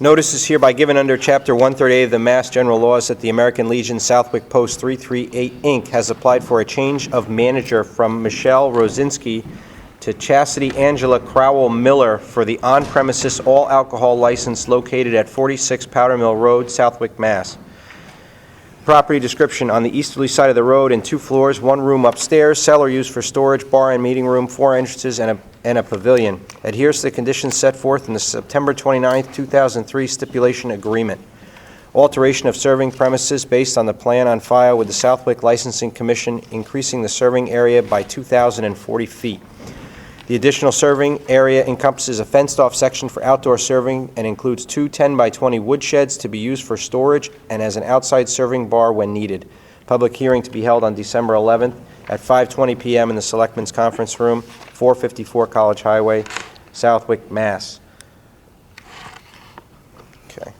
Notice is hereby given under Chapter 138 of the Mass General Laws that the American Legion Southwick Post 338, Inc. has applied for a change of manager from Michelle Rosinski to Chastity Angela Crowell Miller for the on-premises all-alcohol license located at 46 Powder Mill Road, Southwick, Mass. Property description, on the easterly side of the road in two floors, one room upstairs, cellar used for storage, bar and meeting room, four entrances, and a and a pavilion. Adheres to the conditions set forth in the September 29, 2003 stipulation agreement. Alteration of serving premises based on the plan on file with the Southwick Licensing Commission, increasing the serving area by 2,040 feet. The additional serving area encompasses a fenced-off section for outdoor serving and includes two 10 by 20 wood sheds to be used for storage and as an outside serving bar when needed. Public hearing to be held on December 11th at 5:20 PM in the Selectmen's Conference Room, 454 College Highway, Southwick, Mass. Okay.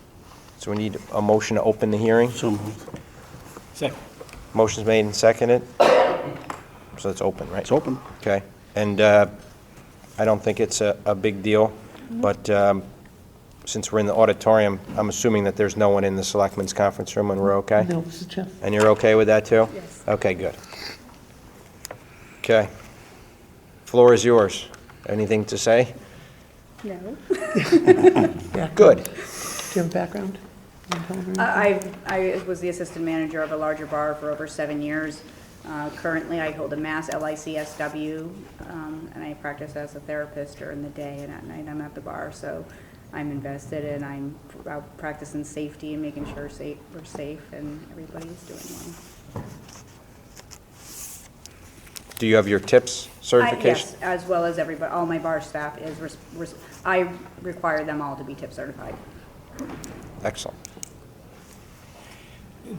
So we need a motion to open the hearing. So moved. Second. Motion's made and seconded. So it's open, right? It's open. Okay, and uh, I don't think it's a, a big deal, but um, since we're in the auditorium, I'm assuming that there's no one in the Selectmen's Conference Room, and we're okay? No, this is Jeff. And you're okay with that, too? Yes. Okay, good. Okay. Floor is yours. Anything to say? No. Good. Do you have a background? I, I was the assistant manager of a larger bar for over seven years. Uh, Currently, I hold a Mass LICSW, um, and I practice as a therapist during the day, and at night I'm at the bar, so I'm invested, and I'm out practicing safety and making sure safe, we're safe and everybody's doing Do you have your TIPS well. I- certification? Yes, as well as everybody, all my bar staff is, res- res- I require them all to be tip certified. Excellent.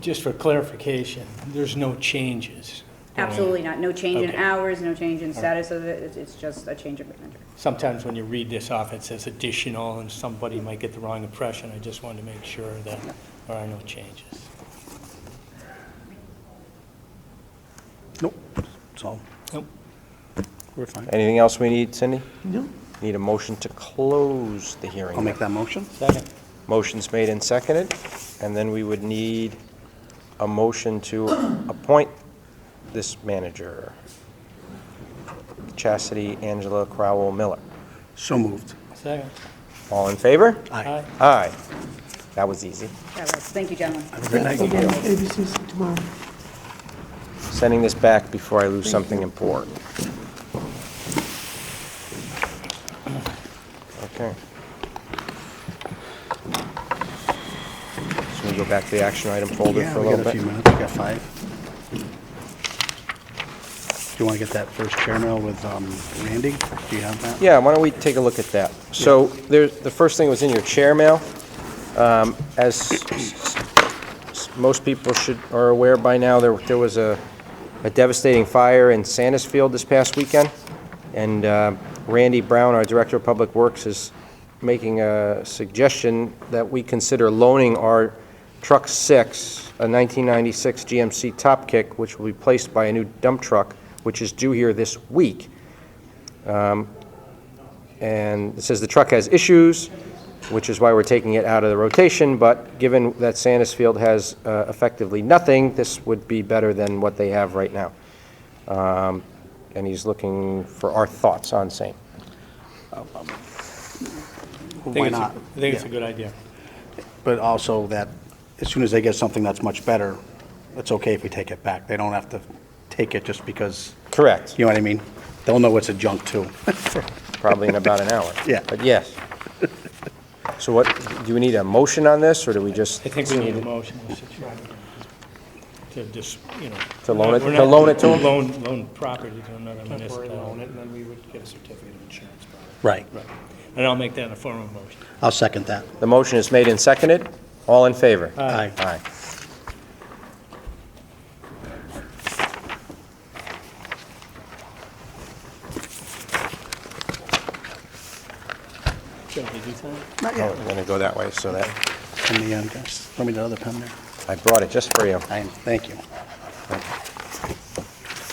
Just for clarification, there's no changes. Absolutely not, no change in Okay. hours, no change in status of it, It's- it's just a change of manager. Sometimes when you read this off, it says additional, and somebody might get the wrong impression. I just wanted to make sure that there are no changes. Nope, it's all, Nope. we're fine. Anything else we need, Cindy? No. Need a motion to close the hearing? I'll make that motion. Second. Motion's made and seconded, and then we would need a motion to appoint this manager, Chastity Angela Crowell Miller. So moved. Second. All in favor? Aye. Aye. That was easy. That was- Thank you, gentlemen. Good night. ABC's tomorrow. Sending this back before I lose something important. Okay. So we go back to the action item folder Yeah, for a we little got bit? a few minutes, we got five. Do you want to get that first chair mail with um, Randy? Do you have that? Yeah, why don't we take a look at that? So there, the first thing was in your chair mail. Um, As s- s- most people should, are aware by now, there, there was a a devastating fire in Sandusfield this past weekend. And uh, Randy Brown, our Director of Public Works, is making a suggestion that we consider loaning our Truck 6, a 1996 GMC Top Kick, which will be placed by a new dump truck, which is due here this week. And it says the truck has issues, which is why we're taking it out of the rotation, but given that Sandusfield has uh, effectively nothing, this would be better than what they have right now. Um, And he's looking for our thoughts on same. I Why think it's a- not? I think it's a Yeah. good idea. But also that, as soon as they get something that's much better, it's okay if we take it back. They don't have to take it just because, Correct. you know what I mean? They'll know it's a junk too. Probably in about an hour. Yeah. But yes. So what, do we need a motion on this, or do we just? I think we need a motion Mr. Chairman, to just, you know. To loan it- we're to not- loan it to 'em? Loan, loan property to another municipality. temporarily own it, and then we would get a certificate of insurance. Right. Right. And I'll make that in a form of motion. I'll second that. The motion is made and seconded. All in favor? Aye. Aye. Should we do that? Not Oh, yet. we're going to go that way, so that, Let me, uh, just- let me the other pen there. I brought it just for you. I am, thank you.